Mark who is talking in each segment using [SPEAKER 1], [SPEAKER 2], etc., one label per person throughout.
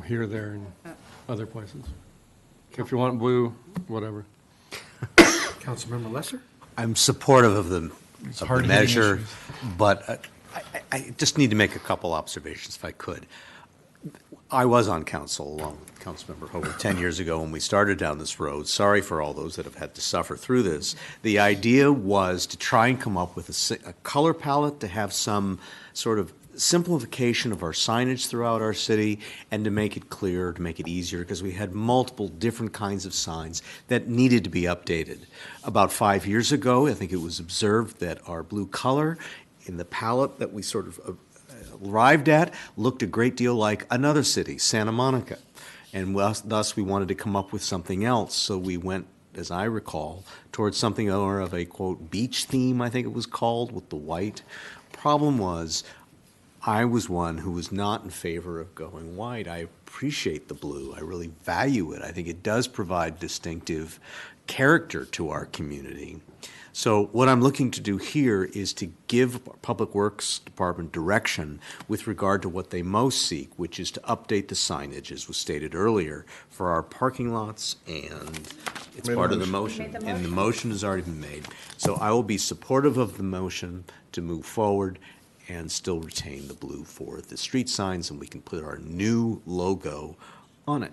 [SPEAKER 1] here, there, and other places. If you want blue, whatever.
[SPEAKER 2] Councilmember Lesser?
[SPEAKER 3] I'm supportive of the, of the
[SPEAKER 2] hard-hitting
[SPEAKER 3] measure,
[SPEAKER 2] issues.
[SPEAKER 3] but uh, I, I- I just need to make a couple observations if I could. I was on council along with Councilmember Hobart 10 years ago when we started down this road. Sorry for all those that have had to suffer through this. The idea was to try and come up with a si- a color palette, to have some sort of simplification of our signage throughout our city, and to make it clearer, to make it easier, because we had multiple different kinds of signs that needed to be updated. About five years ago, I think it was observed that our blue color in the palette that we sort of uh, arrived at looked a great deal like another city, Santa Monica. And thus, thus we wanted to come up with something else. So we went, as I recall, towards something more of a quote beach theme, I think it was called, with the white. Problem was, I was one who was not in favor of going white. I appreciate the blue. I really value it. I think it does provide distinctive character to our community. So what I'm looking to do here is to give Public Works Department direction with regard to what they most seek, which is to update the signage, as was stated earlier, for our parking lots and it's part of the motion. And the motion has already been made. So I will be supportive of the motion to move forward and still retain the blue for the street signs, and we can put our new logo on it.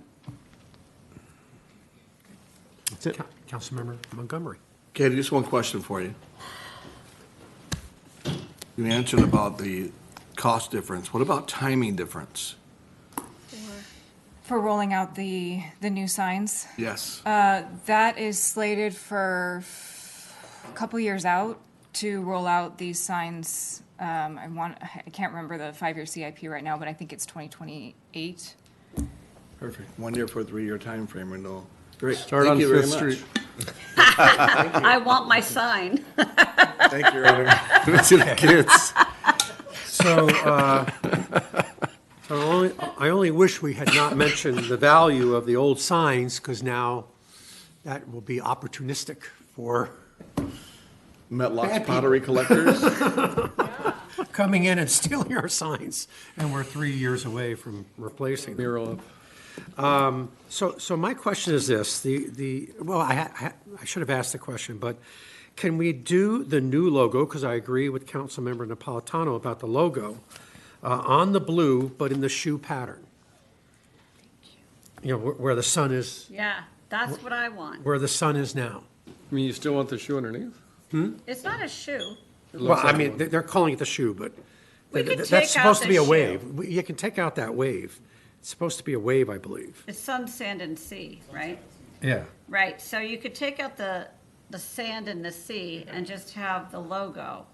[SPEAKER 3] That's it.
[SPEAKER 2] Coun- Councilmember Montgomery?
[SPEAKER 4] Katie, just one question for you. You answered about the cost difference. What about timing difference?
[SPEAKER 5] For rolling out the, the new signs,
[SPEAKER 4] Yes.
[SPEAKER 5] that is slated for a couple years out to roll out these signs. Um, I want, I can't remember the five-year CIP right now, but I think it's 2028.
[SPEAKER 4] Perfect. One year for a three-year time frame renewal. Great.
[SPEAKER 1] Start on
[SPEAKER 4] Thank you very
[SPEAKER 1] Fifth
[SPEAKER 4] much.
[SPEAKER 1] Street.
[SPEAKER 6] I want my sign.
[SPEAKER 4] Thank you, Your Honor. See the kids.
[SPEAKER 2] So, uh, so I only, I only wish we had not mentioned the value of the old signs, because now that will be opportunistic for
[SPEAKER 4] Metlock's pottery collectors.
[SPEAKER 2] coming in and stealing our signs, and we're three years away from replacing them. Um,
[SPEAKER 1] Mural up.
[SPEAKER 2] So, so my question is this, the, the, well, I, ha- ha- I should have asked the question, but can we do the new logo, because I agree with Councilmember Napolitano about the logo, uh, on the blue, but in the shoe pattern? You know, where, where the sun is,
[SPEAKER 6] Yeah, that's what I want.
[SPEAKER 2] where the sun is now.
[SPEAKER 1] I mean, you still want the shoe underneath?
[SPEAKER 6] It's not a shoe.
[SPEAKER 2] Well, I mean, they- they're calling it the shoe, but
[SPEAKER 6] We
[SPEAKER 2] th-
[SPEAKER 6] could
[SPEAKER 2] th-
[SPEAKER 6] take
[SPEAKER 2] that's
[SPEAKER 6] out
[SPEAKER 2] supposed to
[SPEAKER 6] the
[SPEAKER 2] be a
[SPEAKER 6] shoe.
[SPEAKER 2] wave. We- You can take out that wave. It's supposed to be a wave, I believe.
[SPEAKER 6] It's sun, sand, and sea, right?
[SPEAKER 2] Yeah.
[SPEAKER 6] Right, so you could take out the, the sand and the sea and just have the logo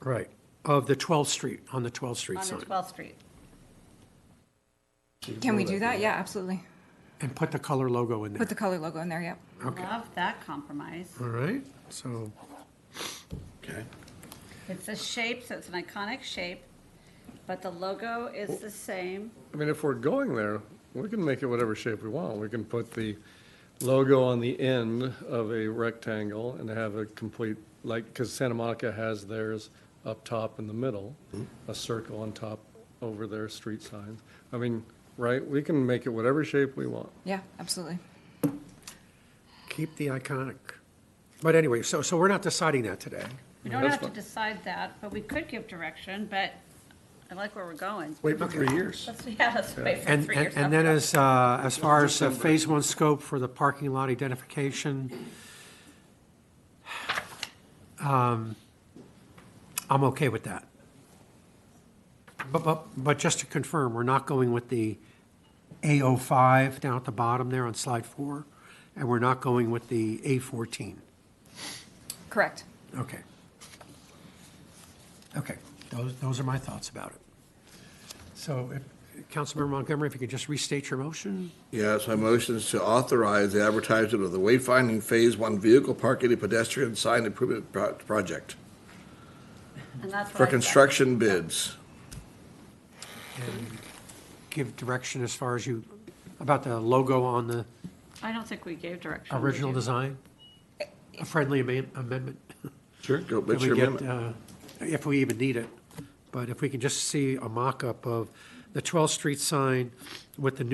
[SPEAKER 2] Right, of the 12th Street, on the 12th Street
[SPEAKER 6] on the
[SPEAKER 2] sign.
[SPEAKER 6] 12th Street.
[SPEAKER 5] Can we do that? Yeah, absolutely.
[SPEAKER 2] And put the color logo in there.
[SPEAKER 5] Put the color logo in there, yep.
[SPEAKER 6] Love that compromise.
[SPEAKER 2] All right, so,
[SPEAKER 4] Okay.
[SPEAKER 6] It's a shape, so it's an iconic shape, but the logo is the same.
[SPEAKER 1] I mean, if we're going there, we can make it whatever shape we want. We can put the logo on the end of a rectangle and have a complete, like, because Santa Monica has theirs up top in the middle, a circle on top over their street signs. I mean, right, we can make it whatever shape we want.
[SPEAKER 5] Yeah, absolutely.
[SPEAKER 2] keep the iconic. But anyway, so, so we're not deciding that today.
[SPEAKER 6] We don't
[SPEAKER 1] That's
[SPEAKER 6] have to
[SPEAKER 1] fine.
[SPEAKER 6] decide that, but we could give direction, but I like where we're going.
[SPEAKER 4] Wait for three years.
[SPEAKER 6] Let's, yeah, let's wait for
[SPEAKER 2] And,
[SPEAKER 6] three
[SPEAKER 2] and
[SPEAKER 6] years.
[SPEAKER 2] and then as, uh, as far as uh, Phase One scope for the parking lot identification, um, I'm okay with that. But, but, but just to confirm, we're not going with the A05 down at the bottom there on slide four, and we're not going with the A14.
[SPEAKER 5] Correct.
[SPEAKER 2] Okay. Okay, those, those are my thoughts about it. So, if- Councilmember Montgomery, if you could just restate your motion?
[SPEAKER 4] Yes, my motion is to authorize the advertisement of the wayfinding Phase One vehicle parking and pedestrian sign improvement pro- project
[SPEAKER 2] uh,
[SPEAKER 6] And that's what
[SPEAKER 4] for
[SPEAKER 6] I said.
[SPEAKER 4] construction bids.
[SPEAKER 2] Give direction as far as you, about the logo on the
[SPEAKER 6] I don't think we gave direction. did
[SPEAKER 2] original
[SPEAKER 6] you?
[SPEAKER 2] design? A friendly ama- amendment?
[SPEAKER 4] Sure. Go,
[SPEAKER 2] That
[SPEAKER 4] what's
[SPEAKER 2] we
[SPEAKER 4] your
[SPEAKER 2] get,
[SPEAKER 4] amendment?
[SPEAKER 2] uh, If we even need it. But if we can just see a mock-up of the 12th Street sign with the new